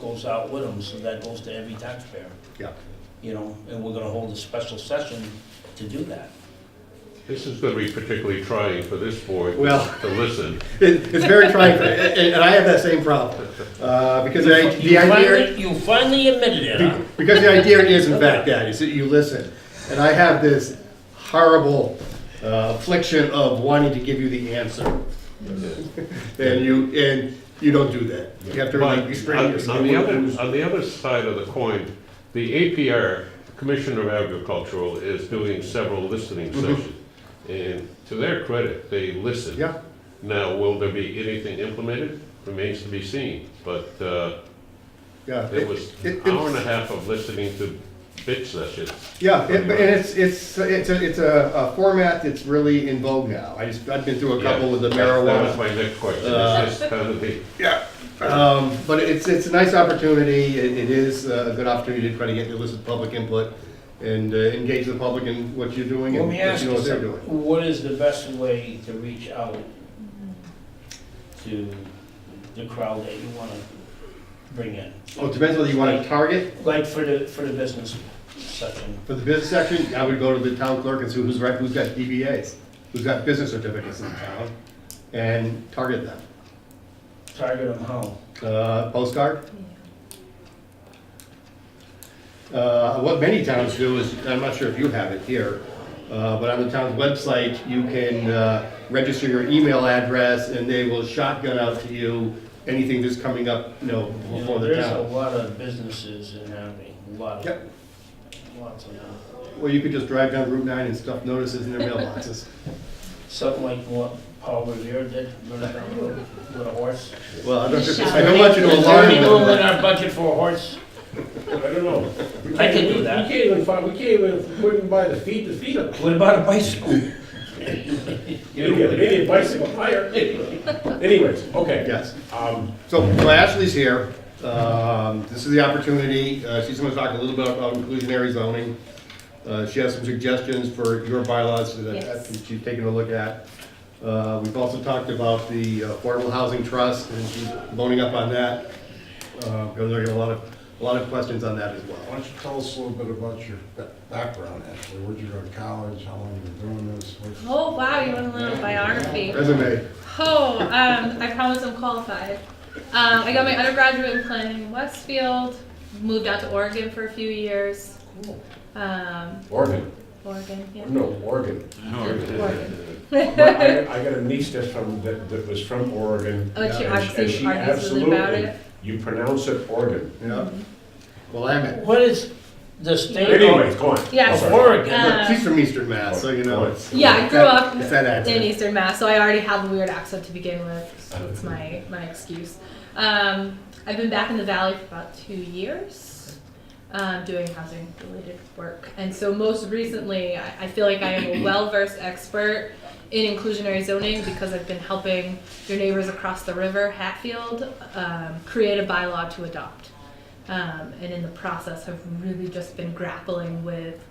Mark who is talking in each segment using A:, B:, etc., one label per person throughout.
A: goes out with them, so that goes to every taxpayer,
B: Yeah.
A: you know, and we're gonna hold a special session to do that.
C: This is gonna be particularly trying for this board
B: Well-
C: to listen.
B: It, it's very trying, for- and, and I have that same problem, uh, because I,
A: You
B: the idea,
A: finally, you finally admitted it, huh?
B: because the idea is in fact that, is that you listen. And I have this horrible uh, affliction of wanting to give you the answer, and you, and you don't do that. You have to
C: But on
B: really restrain yourself.
C: on the other, on the other side of the coin, the APR, Commissioner of Agricultural, is doing several listening
B: Mm-hmm.
C: sessions. And to their credit, they listen.
B: Yeah.
C: Now, will there be anything implemented? Remains to be seen, but, uh,
B: Yeah,
C: It was an
B: it-
C: hour and a half of listening to bitch sessions.
B: Yeah, it- and it's, it's, it's a, it's a a format that's really in vogue now. I just, I've been through a couple with the
C: Yeah, that- That was
B: marijuana.
C: my next question,
B: Uh,
C: is this kind of the,
B: Yeah. Um, but it's, it's a nice opportunity, it, it is a good opportunity to try to get, to listen to public input and uh, engage the public in what you're doing
A: Let
B: and
A: me
B: let
A: ask
B: you know
A: you
B: what they're doing.
A: something, what is the best way to reach out to the crowd that you wanna bring in?
B: Oh, it depends whether you want to target
A: Like for the, for the business section,
B: for the business section, I would go to the town clerk and see who's, right- who's got DBAs, who's got business certificates in town, and target them.
A: target them how?
B: Uh, postcard? Uh, what many towns do is, I'm not sure if you have it here, uh, but on the town's website, you can, uh, register your email address and they will shotgun out to you anything that's coming up, you know,
A: You
B: before
A: know,
B: the
A: there's a
B: town.
A: lot of businesses in Hadley, a lot of,
B: Yep,
A: lots of them.
B: well, you could just drive down Route nine and stuff notices in their mailboxes.
A: Something like what Paul Revere did, run it down the road with a horse.
B: Well, I don't, I don't want you to alarm
A: Is there any room in
B: them.
A: our budget for a horse?
D: I don't know.
A: I can do that.
D: We can't even find, we can't even, we can buy the feed to feed them.
A: What about a bicycle?
D: They need- they need a bicycle hire. Anyways, okay.
B: Yes.
D: Um,
B: So well, Ashley's here. Um, This is the opportunity. Uh, She's going to talk a little bit about inclusionary zoning. Uh, She has some suggestions for your bylaws that I
E: Yes.
B: think she's taken a look at. Uh, We've also talked about the Affordable Housing Trust, and she's loading up on that. Uh, Because there are a lot of, a lot of questions on that as
F: Why
B: well.
F: don't you tell us a little bit about your ba- background, Ashley? Where'd you go to college? How long you been doing this? What's-
E: Oh wow, you want a little biography?
B: Resume.
E: Oh, um, I promise I'm qualified. Um, I got my undergraduate in planning in Westfield. Moved out to Oregon for a few years. Um,
D: Oregon,
E: Oregon, yeah.
D: no, Oregon.
E: Oregon.
D: But I, I got a niece that's from, that, that was from Oregon.
E: Oh, she
D: and she- and
E: obviously
D: she
E: argues with me about
D: absolutely-
E: it.
D: You pronounce it Oregon.
B: Yeah.
E: Mm-hmm.
B: Well, I'm it.
A: What is the state
D: Anyways,
A: of
D: go on.
E: Yeah.
D: I'm sorry.
A: Oregon?
E: Uh,
B: She's from Eastern Mass, so you know it's.
E: Yeah, I grew up
B: It's that
E: in
B: accent.
E: Eastern Mass, so I already had the weird accent to begin with. So it's my, my excuse. Um, I've been back in the valley for about two years, um, doing housing related work, and so most recently, I, I feel like I am a well versed expert in inclusionary zoning because I've been helping your neighbors across the river, Hatfield, um, create a bylaw to adopt. Um, and in the process, have really just been grappling with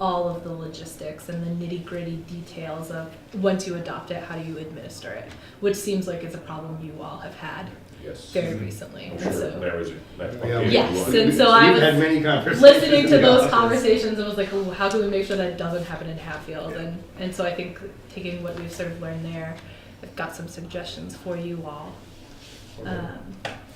E: all of the logistics and the nitty gritty details of once you adopt it, how do you administer it? Which seems like it's a problem you all have had
D: Yes.
E: very recently.
D: I'm Mm-hmm. sure
E: So
D: there is a- that's what
B: Yeah.
D: people
E: Yes,
D: want.
E: so- and I
B: We've
E: was
B: had many conversations.
E: listening to
B: in the
E: those
B: office.
E: conversations, it was like, ooh, how do we make sure that doesn't happen in Hatfield? And and so I think taking what we've sort of learned there, I've got some suggestions for you all. Um,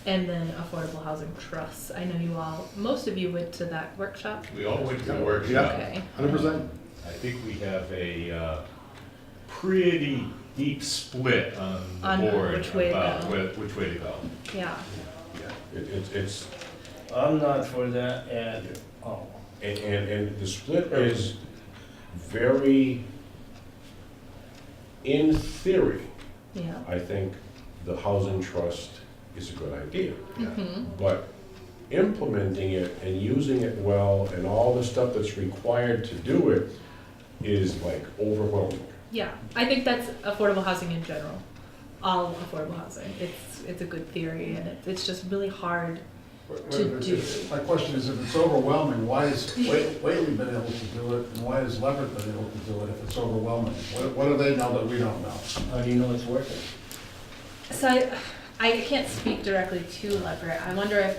E: and then affordable housing trusts. I know you all, most of you went to that workshop.
C: We all went to the workshop.
E: Okay.
B: Hundred percent.
G: I think we have a uh, pretty deep split on
E: On
G: the board
E: which way to
G: about
E: go.
G: whi- which way to go.
E: Yeah.
D: It- It's, it's,
A: I'm not for that at all.
D: and, and, and the split is very, in theory,
E: Yeah.
D: I think the housing trust is a good idea.
E: hmm
D: But implementing it and using it well and all the stuff that's required to do it is like overwhelming.
E: Yeah, I think that's affordable housing in general. All affordable housing. It's it's a good theory, and it, it's just really hard.
F: Wait, wait,
E: To
F: wait,
E: do.
F: My question is, if it's overwhelming, why has Wa- Whately been able to do it, and why has Leverett been able to do it if it's overwhelming? What, what do they know that we don't know?
A: How do you know it's working?
E: So I, I can't speak directly to Leverett. I wonder if